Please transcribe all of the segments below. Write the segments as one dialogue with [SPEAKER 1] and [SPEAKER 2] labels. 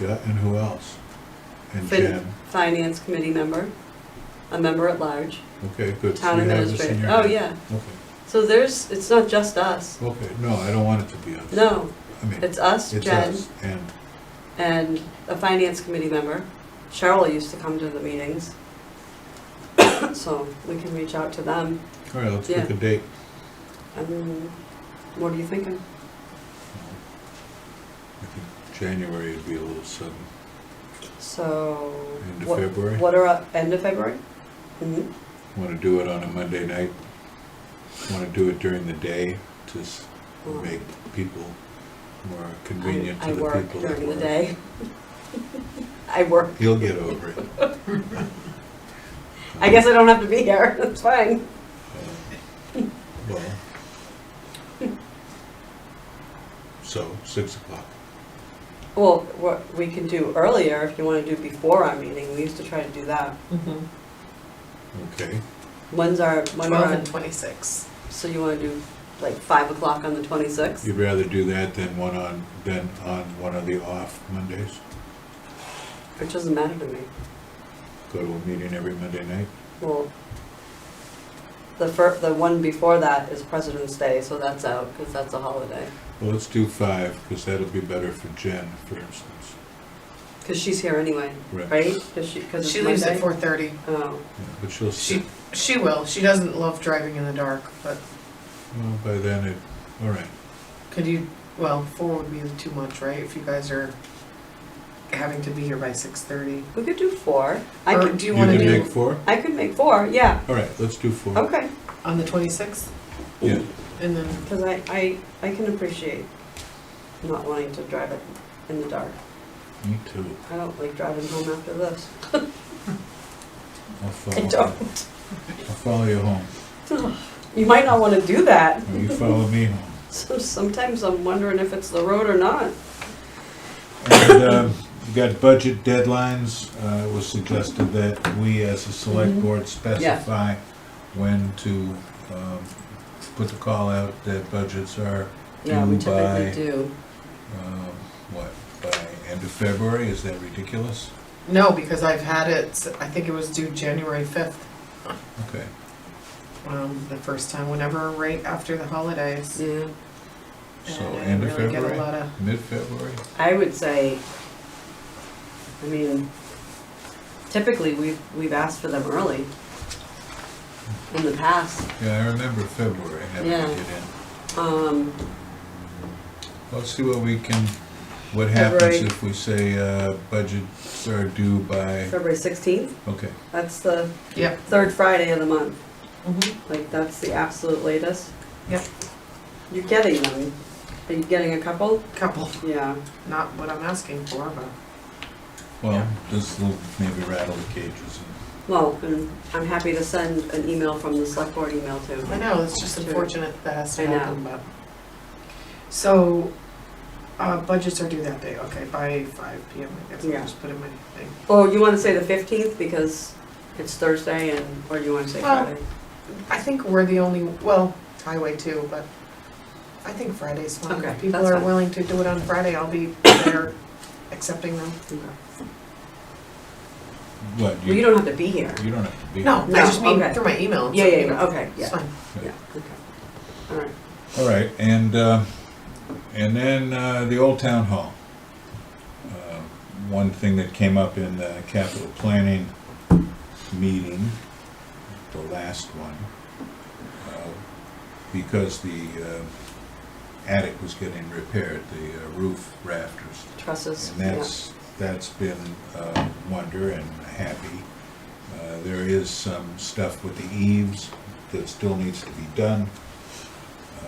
[SPEAKER 1] Yeah, and who else? And
[SPEAKER 2] Fin-
[SPEAKER 1] Jen,
[SPEAKER 2] Finance committee member, a member at large,
[SPEAKER 1] okay, good. So
[SPEAKER 2] town
[SPEAKER 1] you have this in
[SPEAKER 2] administrator.
[SPEAKER 1] your
[SPEAKER 2] Oh,
[SPEAKER 1] hand.
[SPEAKER 2] yeah.
[SPEAKER 1] Okay,
[SPEAKER 2] So there's, it's not just us.
[SPEAKER 1] okay, no, I don't want it to be us.
[SPEAKER 2] No,
[SPEAKER 1] I mean,
[SPEAKER 2] it's us,
[SPEAKER 1] it's
[SPEAKER 2] Jen,
[SPEAKER 1] us, and,
[SPEAKER 2] and a finance committee member. Cheryl used to come to the meetings. So we can reach out to them.
[SPEAKER 1] all right, let's
[SPEAKER 2] Yeah.
[SPEAKER 1] pick a date.
[SPEAKER 2] And what are you thinking?
[SPEAKER 1] I think January would be a little sudden,
[SPEAKER 2] So.
[SPEAKER 1] end of
[SPEAKER 2] what-
[SPEAKER 1] February.
[SPEAKER 2] What are, our- end of February? Mhm.
[SPEAKER 1] Want to do it on a Monday night? Want to do it during the day, just
[SPEAKER 2] Well,
[SPEAKER 1] make people more
[SPEAKER 2] I-
[SPEAKER 1] convenient to the
[SPEAKER 2] I work
[SPEAKER 1] people that
[SPEAKER 2] during the
[SPEAKER 1] work.
[SPEAKER 2] day. I work.
[SPEAKER 1] He'll get over it.
[SPEAKER 2] I guess I don't have to be here, that's fine.
[SPEAKER 1] Uh, Well. So, six o'clock.
[SPEAKER 2] Well, what we can do earlier, if you wanna do before our meeting, we used to try to do that.
[SPEAKER 3] Mm-hmm.
[SPEAKER 1] Okay,
[SPEAKER 2] When's our, when
[SPEAKER 3] Twelve
[SPEAKER 2] our,
[SPEAKER 3] and twenty-six.
[SPEAKER 2] so you wanna do like five o'clock on the twenty-sixth?
[SPEAKER 1] you'd rather do that than one on, than on one of the off Mondays?
[SPEAKER 2] Which doesn't matter to me.
[SPEAKER 1] Go to a meeting every Monday night?
[SPEAKER 2] Well, the fir, the one before that is President's Day, so that's out, cause that's a holiday.
[SPEAKER 1] Well, let's do five, because that'll be better for Jen, for instance.
[SPEAKER 2] Cause she's here anyway,
[SPEAKER 1] Right.
[SPEAKER 2] right? Cause she, cause it's
[SPEAKER 3] She leaves
[SPEAKER 2] Monday.
[SPEAKER 3] at four thirty.
[SPEAKER 2] Oh,
[SPEAKER 1] Yeah, But she'll
[SPEAKER 3] She,
[SPEAKER 1] sit,
[SPEAKER 3] she will. She doesn't love driving in the dark, but
[SPEAKER 1] well, by then it, all right,
[SPEAKER 3] could you, well, four would be too much, right? If you guys are having to be here by six thirty.
[SPEAKER 2] we could do four. I
[SPEAKER 3] Or
[SPEAKER 2] could,
[SPEAKER 3] do
[SPEAKER 1] you
[SPEAKER 3] you wanna
[SPEAKER 1] can make
[SPEAKER 3] do
[SPEAKER 1] four?
[SPEAKER 2] I could make four, yeah,
[SPEAKER 1] All right, let's do four.
[SPEAKER 2] okay.
[SPEAKER 3] on the twenty-sixth?
[SPEAKER 1] Yeah.
[SPEAKER 3] And then,
[SPEAKER 2] Because I, I, I can appreciate not wanting to drive it in the dark.
[SPEAKER 1] Me too.
[SPEAKER 2] I don't like driving home after this.
[SPEAKER 1] I'll
[SPEAKER 2] I
[SPEAKER 1] follow,
[SPEAKER 2] don't.
[SPEAKER 1] I'll follow you home,
[SPEAKER 2] You might not want to do that.
[SPEAKER 1] or you follow me home.
[SPEAKER 2] So sometimes I'm wondering if it's the road or not.
[SPEAKER 1] And um, you got budget deadlines. Uh, It was suggested that we, as a select
[SPEAKER 3] Mm-hmm.
[SPEAKER 2] Mhm.
[SPEAKER 1] board, specify when to um, put the call out that budgets are,
[SPEAKER 2] Yeah, we
[SPEAKER 1] Do by-
[SPEAKER 2] typically do.
[SPEAKER 1] um, what, by end of February? Is that ridiculous?
[SPEAKER 3] no, because I've had it, s- I think it was due January fifth,
[SPEAKER 1] Okay.
[SPEAKER 3] um, the first time, whenever, right after the holidays.
[SPEAKER 2] Yeah.
[SPEAKER 1] So
[SPEAKER 3] And I
[SPEAKER 1] end of
[SPEAKER 3] didn't really get a lot
[SPEAKER 1] February,
[SPEAKER 3] of-
[SPEAKER 1] mid-February?
[SPEAKER 2] I would say, I mean, typically we've, we've asked for them early in the past.
[SPEAKER 1] Yeah, I remember February having
[SPEAKER 2] Yeah.
[SPEAKER 1] to get in.
[SPEAKER 2] Um,
[SPEAKER 1] Let's see what we can, what
[SPEAKER 2] February.
[SPEAKER 1] happens if we say uh, budgets are due by,
[SPEAKER 2] February sixteenth,
[SPEAKER 1] okay.
[SPEAKER 2] that's the
[SPEAKER 3] Yep.
[SPEAKER 2] third Friday of the month.
[SPEAKER 3] Mhm.
[SPEAKER 2] Like, that's the absolute latest?
[SPEAKER 3] Yep.
[SPEAKER 2] You're getting them. Are you getting a couple?
[SPEAKER 3] Couple,
[SPEAKER 2] Yeah.
[SPEAKER 3] not what I'm asking for, but.
[SPEAKER 1] Well,
[SPEAKER 3] Yeah.
[SPEAKER 1] this will maybe rattle the cages and
[SPEAKER 2] Well, and I'm happy to send an email from the select board email
[SPEAKER 3] I
[SPEAKER 2] too.
[SPEAKER 3] know, it's just
[SPEAKER 2] Sure.
[SPEAKER 3] unfortunate that has
[SPEAKER 2] I
[SPEAKER 3] to
[SPEAKER 2] know.
[SPEAKER 3] happen, but. So, uh, budgets are due that day, okay, by five P M, I guess, I'll
[SPEAKER 2] Yeah.
[SPEAKER 3] just put in my thing.
[SPEAKER 2] Oh, you wanna say the fifteenth because it's Thursday and, or you wanna say
[SPEAKER 3] Well-
[SPEAKER 2] Friday?
[SPEAKER 3] I think we're the only, well, highway too, but I think Friday's fine.
[SPEAKER 2] Okay,
[SPEAKER 3] If people
[SPEAKER 2] that's
[SPEAKER 3] are
[SPEAKER 2] fine.
[SPEAKER 3] willing to do it on Friday, I'll be there accepting them.
[SPEAKER 2] Okay.
[SPEAKER 1] What,
[SPEAKER 2] Well, you
[SPEAKER 1] you,
[SPEAKER 2] don't have to be here.
[SPEAKER 1] you don't have to be.
[SPEAKER 3] No, I
[SPEAKER 2] No,
[SPEAKER 3] just mean
[SPEAKER 2] okay.
[SPEAKER 3] through my email.
[SPEAKER 2] Yeah,
[SPEAKER 3] so,
[SPEAKER 2] yeah,
[SPEAKER 3] you know,
[SPEAKER 2] yeah, okay,
[SPEAKER 3] It's
[SPEAKER 2] yeah,
[SPEAKER 3] fine.
[SPEAKER 2] yeah, okay. All right.
[SPEAKER 1] All right, and, uh, and then, uh, the Old Town Hall. Uh, One thing that came up in the capital planning meeting, the last one, uh, because the uh, attic was getting repaired, the uh, roof rafters.
[SPEAKER 2] Trusses,
[SPEAKER 1] And
[SPEAKER 2] yeah.
[SPEAKER 1] that's, that's been a wonder and happy. Uh, There is some stuff with the eaves that still needs to be done.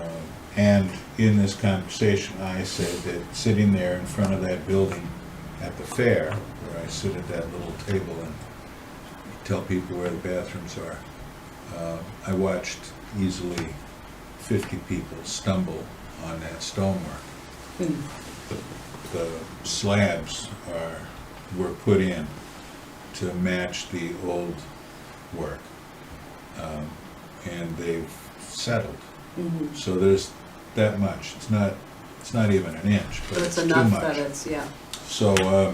[SPEAKER 1] Um, And in this conversation, I said that sitting there in front of that building at the fair, where I sit at that little table and tell people where the bathrooms are, uh, I watched easily 50 people stumble on that stonework
[SPEAKER 2] Hmm.
[SPEAKER 1] the slabs are, were put in to match the old work. Um, And they've settled,
[SPEAKER 2] Mhm.
[SPEAKER 1] so there's that much, it's not, it's not even an inch, but
[SPEAKER 2] But it's
[SPEAKER 1] it's too
[SPEAKER 2] enough that
[SPEAKER 1] much.
[SPEAKER 2] it's, yeah.
[SPEAKER 1] So, um,